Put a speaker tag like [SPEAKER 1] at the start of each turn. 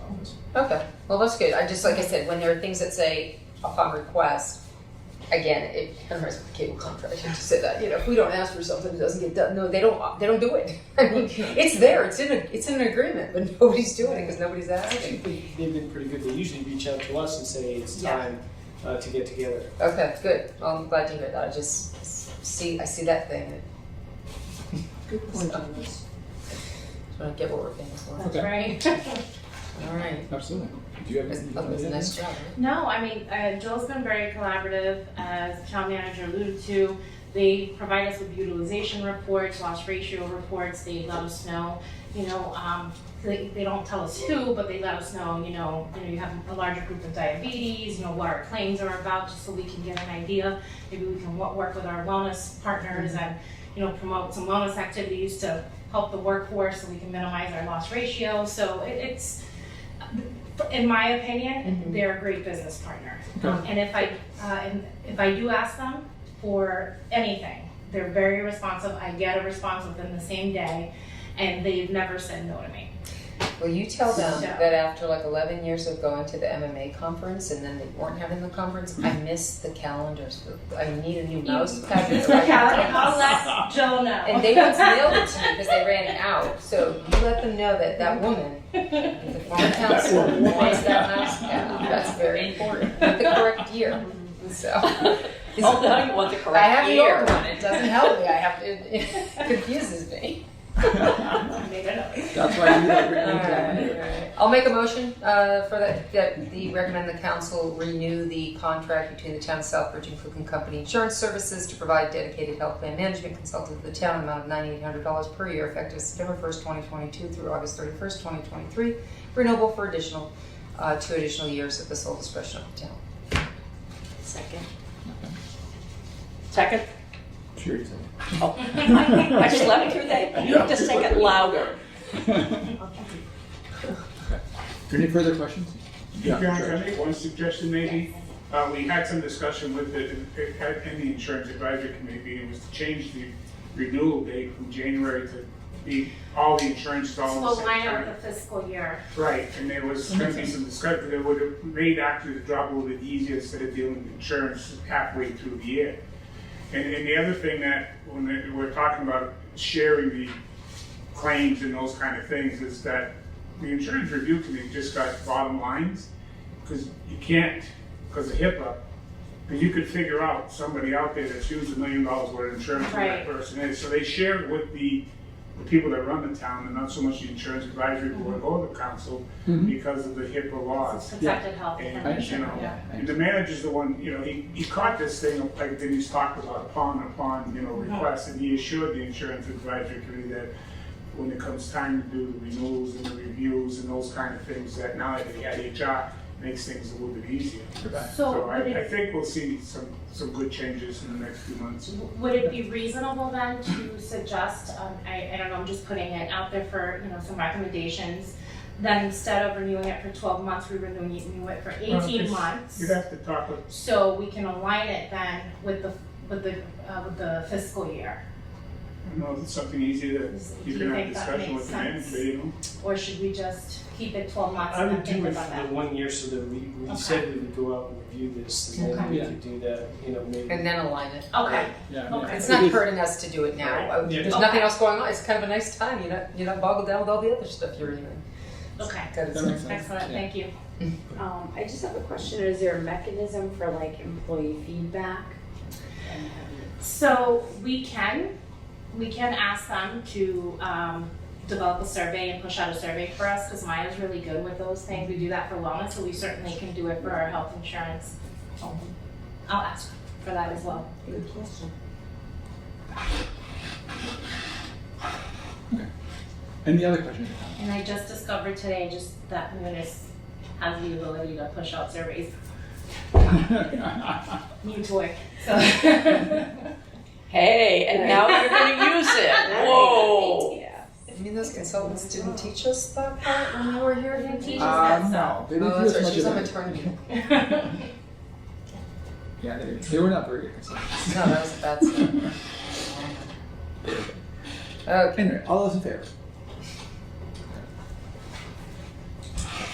[SPEAKER 1] Okay, well, that's good. I just, like I said, when there are things that say upon request, again, it, I remember with the cable contract, I just said that, you know, if we don't ask for something, it doesn't get done. No, they don't, they don't do it. I mean, it's there, it's in a, it's in an agreement, but nobody's doing it because nobody's asking.
[SPEAKER 2] They- They've been pretty good. They usually reach out to us and say it's
[SPEAKER 1] Yeah.
[SPEAKER 2] time uh, to get together.
[SPEAKER 1] Okay, good. Well, I'm glad to hear that. I just s- see, I see that thing.
[SPEAKER 3] Good point on this.
[SPEAKER 1] Just want to get what we're paying for.
[SPEAKER 3] That's right.
[SPEAKER 1] All right.
[SPEAKER 4] Absolutely. Do you have?
[SPEAKER 1] That's
[SPEAKER 4] anything
[SPEAKER 1] that was a
[SPEAKER 4] to add?
[SPEAKER 1] nice job.
[SPEAKER 5] No, I mean, uh, Joel's been very collaborative, as town manager alluded to. They provide us with utilization reports, loss ratio reports, they let us know, you know, um, they, they don't tell us who, but they let us know, you know, you know, you have a larger group of diabetes, you know, what our claims are about, just so we can get an idea. Maybe we can wo- work with our wellness partners and, you know, promote some wellness activities to help the workforce, so we can minimize our loss ratio, so it, it's, in my
[SPEAKER 1] Mm-hmm.
[SPEAKER 5] opinion, they're a great business partner. Um, And if I, uh, and if I do ask them for anything, they're very responsive. I get a response within the same day, and they've never said no to me.
[SPEAKER 1] Well, you tell them
[SPEAKER 5] So-
[SPEAKER 1] that after like 11 years of going to the MMA conference and then they weren't having the conference, I miss the calendars. I need a new mouse pad.
[SPEAKER 5] It's
[SPEAKER 1] for my
[SPEAKER 5] okay,
[SPEAKER 1] calendar.
[SPEAKER 5] I'll let Joe know.
[SPEAKER 1] And they once mailed it to me because they ran out. So you let them know that that woman, the former council,
[SPEAKER 4] woman.
[SPEAKER 1] wants that mouse pad. That's very important. With the correct year. So.
[SPEAKER 3] Oh, now you want the correct
[SPEAKER 1] I have the
[SPEAKER 3] year.
[SPEAKER 1] old one. It doesn't help me. I have it, it confuses me.
[SPEAKER 5] Maybe not.
[SPEAKER 4] That's why you have
[SPEAKER 1] All
[SPEAKER 4] written it down.
[SPEAKER 1] right, all right. I'll make a motion uh, for that, that the, recommend the council renew the contract between the town of Southbridge and Cook and Company Insurance Services to provide dedicated health plan management consultant to the town, amount of ninety-eight hundred dollars per year, effective September first, twenty twenty-two through August thirty-first, twenty twenty-three, renewable for additional, uh, two additional years at the sole discretion of the town.
[SPEAKER 3] Second. Second?
[SPEAKER 4] Sure.
[SPEAKER 3] Oh. I just let it through that. You have to say it louder.
[SPEAKER 4] Any further questions? Yeah,
[SPEAKER 6] John,
[SPEAKER 4] sure.
[SPEAKER 6] can I make one suggestion maybe? Uh, we had some discussion with the, in the insurance advisory committee, and it was to change the renewal date from January to be all the insurance all at the
[SPEAKER 5] So
[SPEAKER 6] same
[SPEAKER 5] line up
[SPEAKER 6] time.
[SPEAKER 5] with the fiscal year.
[SPEAKER 6] Right, and there was gonna be some discussion, that would have made actually the job a little bit easier instead of dealing with insurance halfway through the year. And, and the other thing that, when they- we're talking about sharing the claims and those kind of things, is that the insurance review committee just got bottom lines, because you can't, because of HIPAA, but you could figure out somebody out there that's used a million dollars worth of insurance, who that
[SPEAKER 5] Right.
[SPEAKER 6] person is. So they shared with the, the people that run the town, and not so much the insurance advisory board or the council, because of the HIPAA laws.
[SPEAKER 5] Mm-hmm. It's protected health.
[SPEAKER 6] And, you know,
[SPEAKER 5] Yeah.
[SPEAKER 6] the manager's the one, you know, he, he caught this thing, like Denise talked about, upon, upon, you know,
[SPEAKER 5] Mm-hmm.
[SPEAKER 6] request, and he assured the insurance advisory committee that when it comes time to do the renewals and the reviews and those kind of things, that now that they had HR, makes things a little bit easier.
[SPEAKER 5] So
[SPEAKER 6] So I,
[SPEAKER 5] would
[SPEAKER 6] I
[SPEAKER 5] it,
[SPEAKER 6] think we'll see some, some good changes in the next few months.
[SPEAKER 5] would it be reasonable then to suggest, um, I, I don't know, I'm just putting it out there for, you know, some recommendations, then instead of renewing it for twelve months, we renew it- renew it for
[SPEAKER 6] Well,
[SPEAKER 5] eighteen
[SPEAKER 6] it's-
[SPEAKER 5] months?
[SPEAKER 6] You'd have to talk with,
[SPEAKER 5] So we can align it then with the, with the, uh, with the fiscal year?
[SPEAKER 6] I don't know, if it's something easier that
[SPEAKER 5] Do
[SPEAKER 6] you
[SPEAKER 5] you
[SPEAKER 6] can have
[SPEAKER 5] think that makes
[SPEAKER 6] discussion with the
[SPEAKER 5] sense?
[SPEAKER 6] manager, you know?
[SPEAKER 5] Or should we just keep it twelve months
[SPEAKER 2] I
[SPEAKER 5] and then
[SPEAKER 2] would do
[SPEAKER 5] think
[SPEAKER 2] it
[SPEAKER 5] about
[SPEAKER 2] for
[SPEAKER 5] that?
[SPEAKER 2] the one year so that we, we
[SPEAKER 5] Okay.
[SPEAKER 2] said we would go out and review this and then we
[SPEAKER 4] Okay.
[SPEAKER 2] could do that, you know, maybe.
[SPEAKER 1] And then align it.
[SPEAKER 5] Okay,
[SPEAKER 4] Yeah, yeah.
[SPEAKER 5] okay.
[SPEAKER 1] Oh, It's not hurting us to do it now. Uh,
[SPEAKER 2] Yeah.
[SPEAKER 1] There's nothing else going on. It's kind of a nice time. You're not, you're not boggled down with all the other stuff you're doing.
[SPEAKER 5] Okay,
[SPEAKER 4] That makes sense.
[SPEAKER 5] excellent,
[SPEAKER 4] Yeah.
[SPEAKER 5] thank you.
[SPEAKER 7] Um, I just have a question, is there a mechanism for like employee feedback? And have you-
[SPEAKER 5] So we can, we can ask them to um, develop a survey and push out a survey for us, because Maya's really good with those things. We do that for wellness, so we certainly can do it for our health insurance. Um, I'll ask for that as well.
[SPEAKER 7] Good question.
[SPEAKER 4] Any other questions?
[SPEAKER 5] And I just discovered today just that Munis has the ability to push out surveys, new toy, so.
[SPEAKER 3] Hey, and now you're gonna use it. Whoa.
[SPEAKER 7] Yeah.
[SPEAKER 1] You mean those consultants didn't teach us that part when we were here?
[SPEAKER 5] They didn't teach us
[SPEAKER 4] Uh, no, they didn't
[SPEAKER 1] Oh,
[SPEAKER 4] do
[SPEAKER 1] that's
[SPEAKER 4] as
[SPEAKER 1] right,
[SPEAKER 4] much
[SPEAKER 1] she's
[SPEAKER 4] as
[SPEAKER 1] on
[SPEAKER 4] I.
[SPEAKER 1] maternity.
[SPEAKER 4] Yeah, they, did. they were not very good.
[SPEAKER 1] No, that was a bad sign. Okay, Oh,
[SPEAKER 4] Anyway, all those in favor?